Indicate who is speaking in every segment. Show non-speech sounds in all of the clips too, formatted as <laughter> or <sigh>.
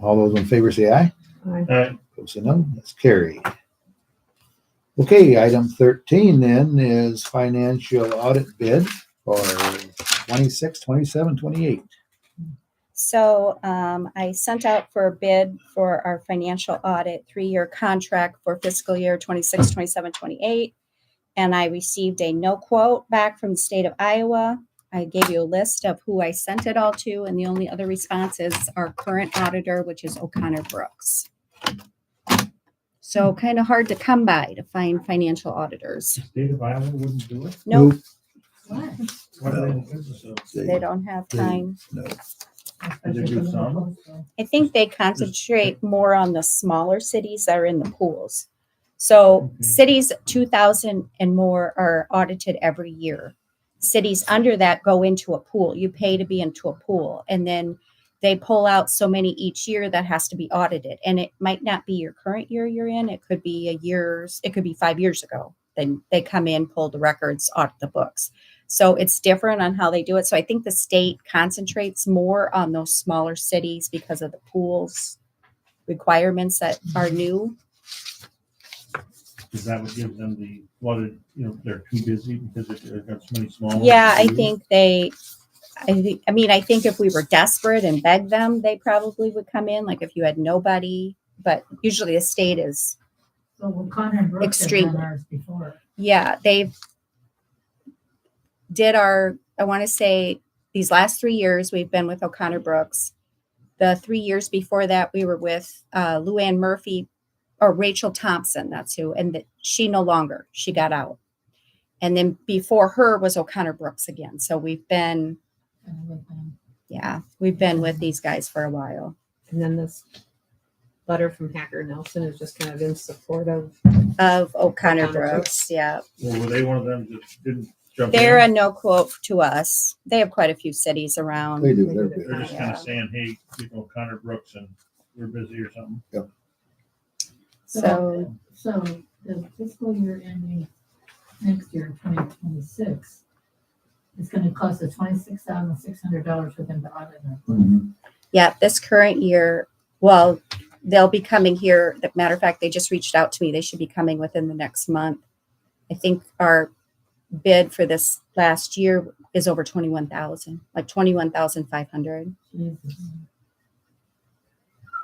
Speaker 1: All those in favor say aye.
Speaker 2: Aye.
Speaker 3: Aye.
Speaker 1: Opposed, say no. That's carried. Okay, item thirteen then is financial audit bid for 26, 27, 28.
Speaker 4: So um, I sent out for a bid for our financial audit, three-year contract for fiscal year 26, 27, 28. And I received a no quote back from the state of Iowa. I gave you a list of who I sent it all to, and the only other response is our current auditor, which is O'Connor Brooks. So kind of hard to come by to find financial auditors.
Speaker 3: State of Iowa wouldn't do it.
Speaker 4: Nope,
Speaker 3: What are they in the business of?
Speaker 4: they don't have time.
Speaker 3: Did they do some?
Speaker 4: I think they concentrate more on the smaller cities that are in the pools. So
Speaker 3: Mhm.
Speaker 4: cities two thousand and more are audited every year. Cities under that go into a pool. You pay to be into a pool and then they pull out so many each year that has to be audited. And it might not be your current year you're in. It could be a year's, it could be five years ago. Then they come in, pull the records, audit the books. So it's different on how they do it. So I think the state concentrates more on those smaller cities because of the pools requirements that are new.
Speaker 3: Because that would give them the, what, it- you know, they're too busy because it- they've got so many small. ones
Speaker 4: Yeah,
Speaker 3: to
Speaker 4: I
Speaker 3: do.
Speaker 4: think they, I think, I mean, I think if we were desperate and begged them, they probably would come in, like if you had nobody. But usually the state is,
Speaker 2: So well, Connor and Brooks have done
Speaker 4: Extremely.
Speaker 2: ours before.
Speaker 4: yeah, they've did our, I want to say, these last three years, we've been with O'Connor Brooks. The three years before that, we were with uh, Luann Murphy or Rachel Thompson, that's who, and that she no longer, she got out. And then before her was O'Connor Brooks again. So we've been
Speaker 2: and with them.
Speaker 4: Yeah, we've been with these guys for a while.
Speaker 5: And then this letter from Hacker Nelson is just kind of in support of.
Speaker 4: Of O'Connor
Speaker 5: O'Connor Brooks.
Speaker 4: Brooks, yeah.
Speaker 3: Or were they one of them that didn't jump in?
Speaker 4: They're a no quote to us. They have quite a few cities around.
Speaker 1: They do their bid.
Speaker 3: They're just kind
Speaker 4: Yeah.
Speaker 3: of saying, hey, you know, Connor Brooks and we're busy or something.
Speaker 4: So
Speaker 2: So the fiscal year ending next year, twenty twenty-six, it's gonna cost us twenty-six thousand six hundred dollars for them to audit us.
Speaker 1: Mm-hmm.
Speaker 4: yeah, this current year, well, they'll be coming here. The matter of fact, they just reached out to me. They should be coming within the next month. I think our bid for this last year is over twenty-one thousand, like twenty-one thousand five hundred.
Speaker 2: Jesus.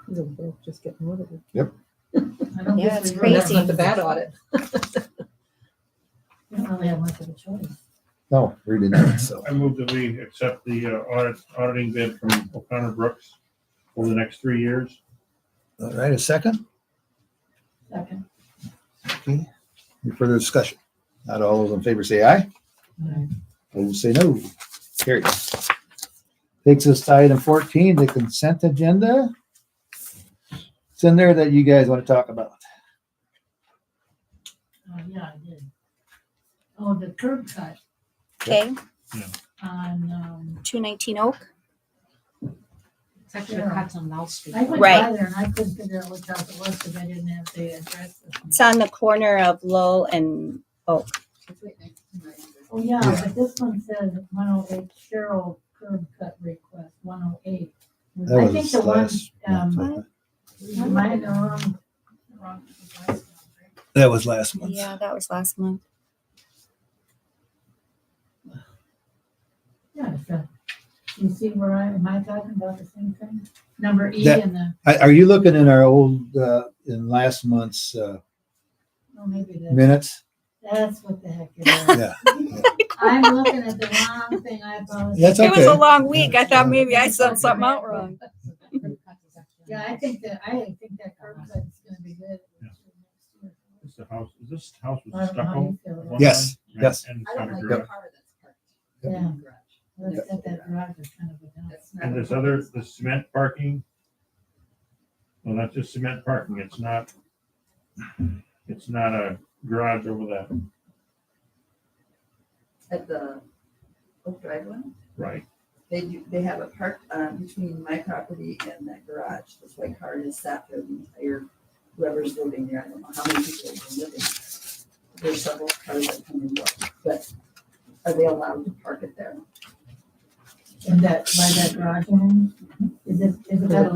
Speaker 5: the bill Just getting rid of it.
Speaker 2: I don't
Speaker 4: Yeah,
Speaker 2: think
Speaker 4: it's
Speaker 2: we really-
Speaker 5: That's not the bad audit.
Speaker 2: We don't really have much of a choice.
Speaker 1: No, Oh, we didn't, think so.
Speaker 3: I move that we accept the uh, audit, auditing bid from O'Connor Brooks for the next three years.
Speaker 1: All right, a second,
Speaker 2: Second.
Speaker 1: any further discussion? Not all those in favor say aye. Opposed, say no. Carried. Takes us to item fourteen, the consent agenda. It's in there that you guys want to talk about.
Speaker 2: Oh, yeah, I did. Oh, the curb cut
Speaker 4: Okay,
Speaker 2: on, um,
Speaker 4: two nineteen Oak.
Speaker 6: It's actually the cuts on Mall Street.
Speaker 2: I went by
Speaker 4: Right.
Speaker 2: there and I couldn't figure out which house it was because I didn't have the address. with me.
Speaker 4: It's on the corner of Lowell and
Speaker 2: Oh, yeah,
Speaker 1: Yeah.
Speaker 2: but this one says one oh eight Cheryl curb cut request, one oh eight.
Speaker 1: That
Speaker 2: I think
Speaker 1: was
Speaker 2: the one,
Speaker 1: last month.
Speaker 2: um,
Speaker 1: I think.
Speaker 2: am I in the wrong? wrong address?
Speaker 1: That was last month.
Speaker 4: Yeah, that was last month.
Speaker 2: Yeah, so, you see where I, am I talking about the same thing? Number E
Speaker 1: That-
Speaker 2: and the,
Speaker 1: Are, are you looking in our old, uh, in last month's, uh,
Speaker 2: oh, maybe that's,
Speaker 1: minutes?
Speaker 2: that's what the heck it is.
Speaker 1: Yeah.
Speaker 2: <laughs> I'm looking at the wrong thing, I apologize.
Speaker 1: That's okay.
Speaker 4: long
Speaker 1: Yeah.
Speaker 2: Yeah, I think that, I think that curb cut's gonna be good.
Speaker 3: Yeah. It's the house, is this house
Speaker 2: I
Speaker 3: with
Speaker 2: don't know how
Speaker 3: stucco?
Speaker 2: you feel about
Speaker 3: one
Speaker 2: it.
Speaker 1: Yes,
Speaker 3: time?
Speaker 1: yes.
Speaker 3: And it's
Speaker 6: I
Speaker 3: got
Speaker 6: don't
Speaker 3: a
Speaker 6: like
Speaker 3: garage.
Speaker 6: the car that's parked
Speaker 2: Yeah,
Speaker 6: in the garage.
Speaker 2: let's set that garage as kind of a dump.
Speaker 6: That's not-
Speaker 3: And this other, the cement parking. Well, that's just cement parking. It's not. It's not a garage over that,
Speaker 6: At the Oak Drive one,
Speaker 3: right?
Speaker 6: they do, they have it parked on between my property and that garage. That's why car is sat there the entire, whoever's living there. I don't know how many people have been living there. There's several cars that come and go, but are they allowed to park it there?
Speaker 2: And that, by that garage, one, is it, is it that